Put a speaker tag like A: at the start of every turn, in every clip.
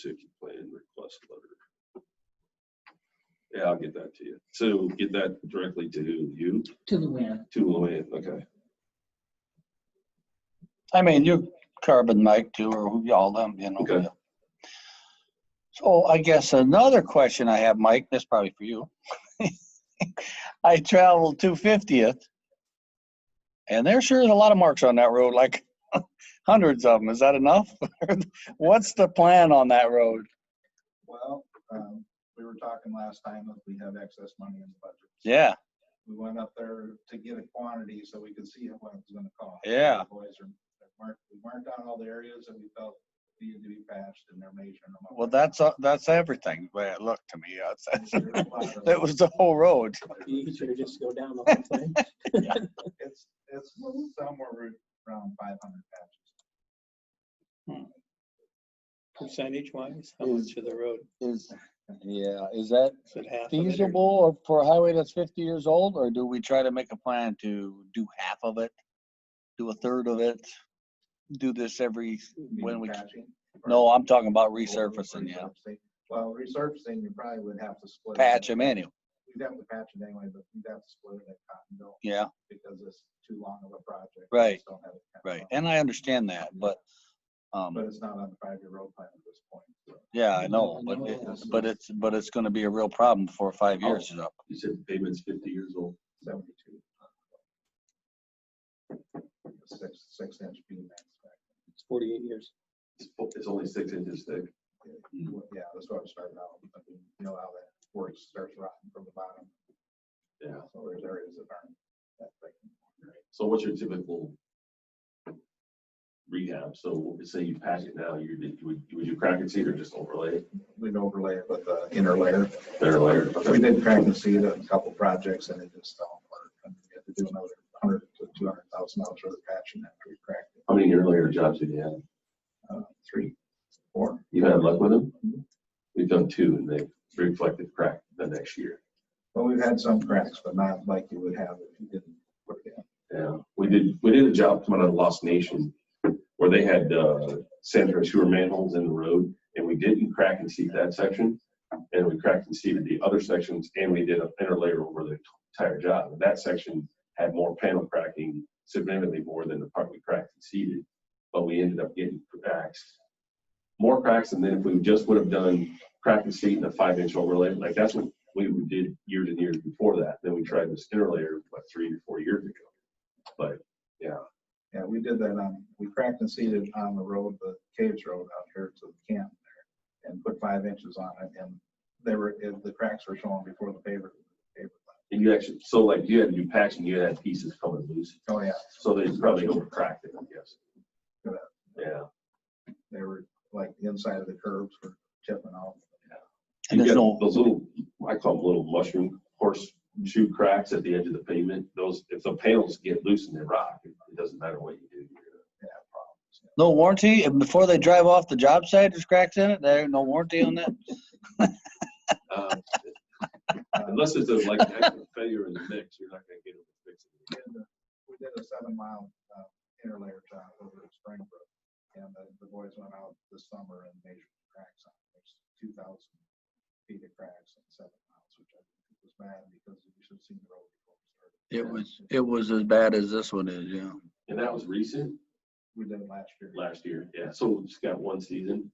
A: safety plan request letter. Yeah, I'll get that to you. So get that directly to you,
B: to Luann.
A: to Luann, okay?
C: I mean, you, Carbon Mike too, or who y'all them, you know.
A: Okay.
C: yeah. So I guess another question I have, Mike, this probably for you. I traveled two fiftieth. And there sure is a lot of marks on that road, like hundreds of them. Is that enough? What's the plan on that road?
D: Well, um, we were talking last time if we have excess money in the budget.
C: Yeah,
D: We went up there to get a quantity so we could see what it was gonna cost.
C: Yeah.
D: The Boys are, they've marked, we marked down all the areas that we felt needed to be patched and they're measuring them. up.
C: well, that's, uh, that's everything, the way it looked to me. That's-
D: There's a lot of-
C: That was the whole road.
E: You should just go down the whole thing.
D: It's, it's somewhere around five hundred patches.
E: Percentage wise, how much of the road
C: Is, yeah, is that
E: is it half? of it or-
C: feasible or for a highway that's fifty years old, or do we try to make a plan to do half of it? Do a third of it? Do this every, when we,
D: Meaning patching or-
C: no, I'm talking about
D: or
C: resurfacing, yeah.
D: resurfacing. Well, resurfacing, you probably would have to split. it.
C: Patch them anyway,
D: You'd have to patch it anyway, but you'd have to split it at Cottonville.
C: yeah,
D: because it's too long of a project. We
C: Right,
D: just don't have it kind of
C: right.
D: funded.
C: And I understand that, but,
D: But
C: um,
D: it's not on the five-year road plan at this point. so.
C: yeah, I know, but it, but it's, Oh. but it's gonna be a real problem for five years is up.
A: You said the pavement's fifty years old.
D: Seventy-two. Six, six inch beam max back.
E: It's Forty-eight years.
A: It's fo- It's only six inches thick.
D: Yeah, that's what I'm starting out. with. I mean, You know how that works, starts rotting from the bottom.
A: Yeah.
D: So there's areas that aren't that thick.
A: So what's your typical rehab? So say you patch it now, you, you would, would you crack and seed or just overlay it?
D: We'd overlay it with the inner layer.
A: Better layer.
D: We did crack and seed a couple projects and it just don't work. And we had to do another hundred to two hundred thousand dollars worth of patching after we cracked it.
A: How many year layer jobs did you have?
D: Uh, Three, four.
A: You had luck with them? We've done two and they reflected crack the next year.
D: Well, we've had some cracks, but not like you would have if you didn't put it in.
A: Yeah, we did, we did a job coming out of Lost Nation where they had, uh, sanitary sewer manholes in the road and we didn't crack and seed that section. And we cracked and seeded the other sections and we did an inner layer over the entire job. That section had more panel cracking significantly more than the part we cracked and seeded. But we ended up getting cracks, more cracks than if we just would have done crack and seed and a five inch overlay. Like that's what we did years and years before that. Then we tried this inner layer, what, three or four years ago.
D: Yeah, we did that on, we cracked and seeded on the road, the caves road out here to the camp there and put five inches on it and they were, it- the cracks were showing before the paver. paver left.
A: And you actually, so like you had to do patching, you had pieces coming loose,
D: Oh, yeah,
A: so they probably over cracked it, I guess.
D: Yeah.
A: Yeah,
D: they were like the inside of the curves were chipping off.
C: And
A: you
C: there's
A: got
C: no,
A: Those little, I call them little mushroom horseshoe cracks at the edge of the pavement, those, if the panels get loose and they rock, it doesn't matter what you do. you're gonna
D: Yeah, problems.
C: no warranty? And before they drive off the job site, there's cracks in it? There ain't no warranty on that?
A: Uh, Unless it's a like actual failure in the mix, you're not gonna get it fixed.
D: We did a- We did a seven mile uh, interlayer job over at Springbrook. And the, the boys went out this summer and measured the cracks on it. There's two thousand feet of cracks in seven miles, which I think was bad because you should have seen the road before we started.
C: It was, it was as bad as this one is, yeah.
A: And that was recent?
D: We did it last year.
A: last year, yeah, so we just got one season.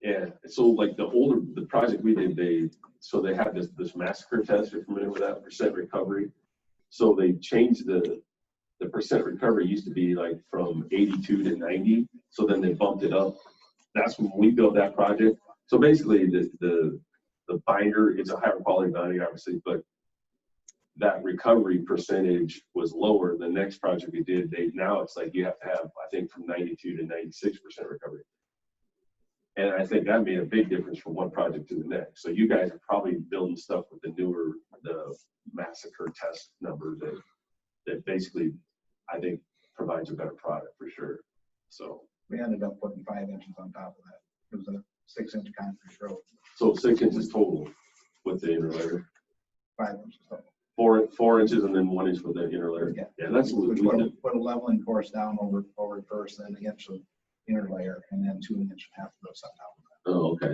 D: Yeah.
A: Yeah, so like the older, the project we did, they, so they had this, this massacre test, if you're familiar with that, percent recovery. So they changed the, the percent recovery used to be like from eighty-two to ninety, so then they bumped it up. That's when we built that project, so basically the, the, the binder, it's a higher quality binder, obviously, but that recovery percentage was lower. The next project we did, they, now it's like you have to have, I think, from ninety-two to ninety-six percent recovery. And I think that made a big difference from one project to the next. So you guys are probably building stuff with the newer, the massacre test number that, that basically, I think, provides a better product for sure. So,
D: We ended up putting five inches on top of that. It was a six inch concrete road,
A: so six inches total with the interlayer,
D: five inches total.
A: four, four inches and then one inch with the interlayer.
D: Yeah.
A: Yeah, that's what we
D: Which
A: did.
D: put a- Put a leveling course down over, over first, then an inch of interlayer and then two inch and a half of those on top.
A: Oh, okay.